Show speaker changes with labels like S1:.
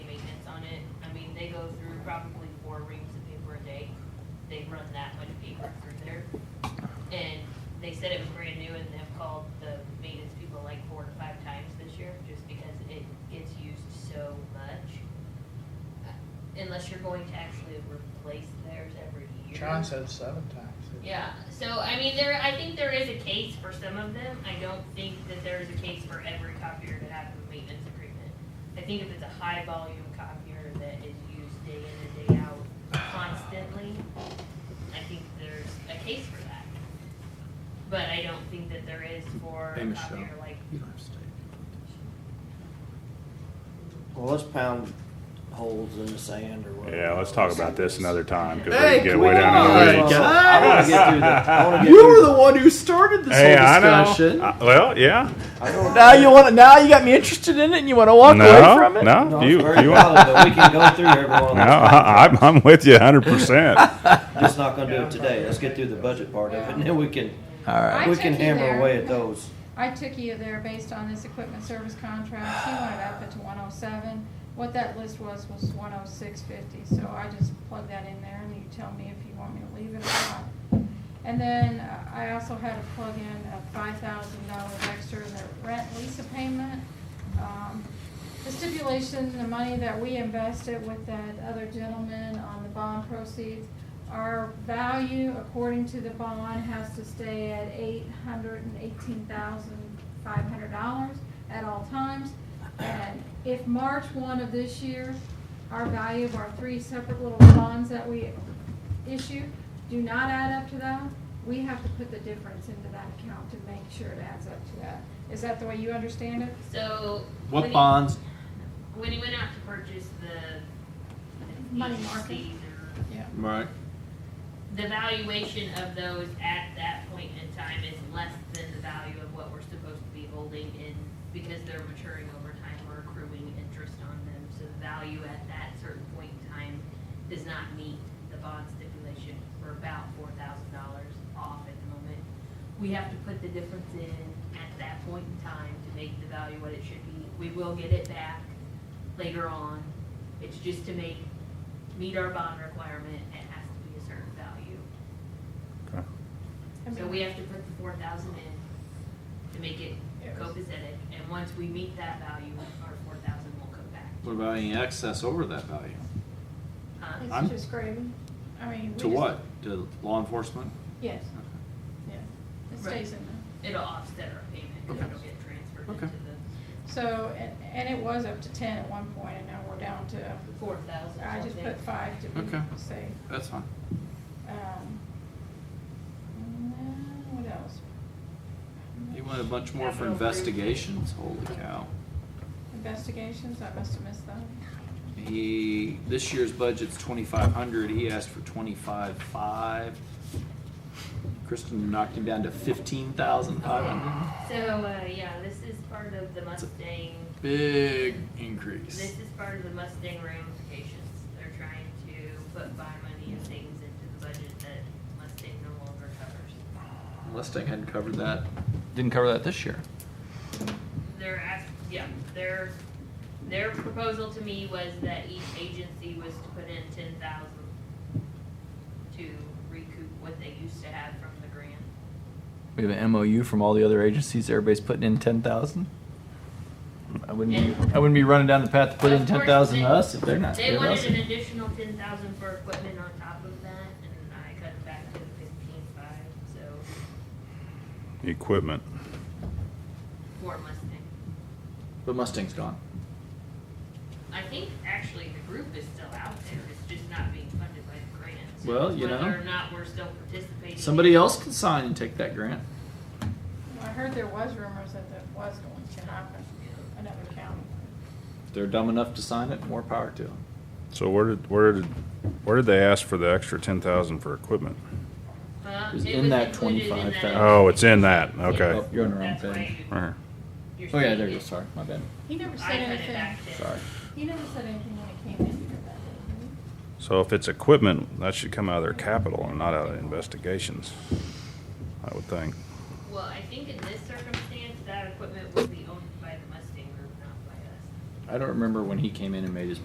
S1: They go through probably four reams of paper a day. They run that much paper through there. And they said it was brand new and they've called the maintenance people like four to five times this year, just because it gets used so much. Uh, Unless you're going to actually replace theirs every year.
S2: John said seven times.
S1: Yeah, so I mean, there, I think there is a case for some of them. I don't think that there is a case for every copier to have a maintenance agreement. I think if it's a high volume copier that is used day in and day out constantly, I think there's a case for that. But I don't think that there is for
S3: Hey,
S1: a
S3: Michelle.
S1: copier like,
S3: You don't have to stay.
S4: Well, let's pound holes in the sand or whatever.
S5: Yeah, let's talk about this another time because
S3: Hey,
S5: we can get
S3: come
S5: way down in the
S3: on.
S4: Well, I wanna
S5: weeds.
S4: get through the, I wanna get
S3: You
S4: through
S3: were the one who started this
S5: Hey,
S3: whole
S5: I
S3: discussion.
S5: know. Uh, well, yeah.
S4: I don't-
S3: Now you want to, now you got me interested in it, and you want to walk
S5: no,
S3: away from it.
S5: no,
S4: No,
S5: you,
S4: it's very
S5: you.
S4: valid, but we can go through every one of
S5: No, uh-uh.
S4: them.
S5: I, I'm, I'm with you 100. percent
S4: Just not gonna do it today. Let's get through the budget part of it, and then we can,
S3: All right.
S6: I
S4: we can
S6: took you
S4: hammer
S6: there.
S4: away at those.
S6: I took you there based on this equipment service contract, he wanted up it to one oh seven. What that list was, was one oh six fifty, so I just plugged that in there and you tell me if you want me to leave it or not. And then uh, I also had to plug in a five thousand dollars extra in the rent lease payment. Um, The stipulation, the money that we invested with that other gentleman on the bond proceeds, our value according to the bond has to stay at eight hundred and eighteen thousand five hundred dollars at all times. And if March one of this year, our value of our three separate little bonds that we issue do not add up to that, we have to put the difference into that account to make sure it adds up to that. Is that the way you understand it?
S1: so. when
S3: What
S1: he-
S3: bonds?
S1: When he went out to purchase the.
S6: Money market.
S1: agencies or
S6: Yeah.
S3: Right.
S1: the valuation of those at that point in time is less than the value of what we're supposed to be holding in, because they're maturing over time, we're accruing interest on them, so the value at that certain point in time does not meet the bond stipulation, we're about four thousand dollars off at the moment. We have to put the difference in at that point in time to make the value what it should be, we will get it back later on, it's just to make meet our bond requirement, it has to be a certain value.
S6: I
S1: So
S6: mean-
S1: we have to put the four thousand in to make it copacetic, and once we meet that value, our four thousand will come back.
S7: What about any excess over that value?
S1: Huh?
S7: I'm-
S6: It's just gravy. I mean. we
S7: To
S6: just-
S7: what? To law enforcement?
S6: Yes, yeah. It
S1: Right.
S6: stays in there.
S1: It'll offset our payment, 'cause it'll get transferred
S7: Okay.
S1: into the
S6: So, and, and it was up to ten at one point and now we're down to,
S1: four thousand
S6: I just put five to
S7: Okay.
S6: be safe.
S7: That's fine.
S6: Um, and then what else?
S7: You want a bunch more for
S1: Capital improvement.
S7: investigations? Holy cow.
S6: Investigations, I must have missed that.
S7: He, this year's budget's twenty-five hundred, he asked for twenty-five-five. Kristen knocked him down to fifteen thousand five hundred.
S1: So, uh, yeah, this is part of the Mustang
S7: Big increase.
S1: This is part of the Mustang ramifications. They're trying to put buy money and things into the budget that Mustang no longer covers.
S7: Mustang hadn't covered that.
S3: Didn't cover that this year.
S1: Their ask, yeah, their, their proposal to me was that each agency was to put in ten thousand to recoup what they used to have from the grant.
S8: We have an MOU from all the other agencies. Everybody's putting in ten thousand. I wouldn't. Be, I wouldn't be running down the path to put in
S1: Of course,
S8: ten thousand
S1: they-
S8: to us if they're not.
S1: They
S8: giving
S1: wanted
S8: us
S1: an
S8: it.
S1: additional ten thousand for equipment on top of that, and I cut it back to fifteen-five, so,
S5: Equipment.
S1: for Mustang.
S7: But Mustang's gone.
S1: I think actually the group is still out there, it's just not being funded by the grant. So
S7: Well, you know.
S1: Whether or not we're still participating.
S7: Somebody else can sign and take that grant.
S6: I heard there was rumors that that was going to happen, another county.
S7: If they're dumb enough to sign it, more power to them.
S5: So where did where did where did they ask for the extra ten thousand for equipment?
S1: Uh,
S7: is
S1: it
S7: in
S1: was
S7: that
S1: included in that
S7: 25,000.
S5: Oh, it's in that. Okay.
S7: Oh, You're on the wrong
S1: That's why
S7: page.
S1: you-
S5: Right.
S1: you're
S7: Oh, yeah,
S1: seeing
S7: there you go,
S1: it.
S7: sorry, my bad.
S6: He never
S1: I
S6: said
S1: cut it
S6: anything,
S1: back to.
S7: Sorry.
S6: he never said anything when he came in here that day, did he?
S5: So if it's equipment, that should come out of their capital and not out of investigations. I would think.
S1: Well, I think in this circumstance, that equipment will be owned by the Mustang group, not by us.
S7: I don't remember when he came in and made his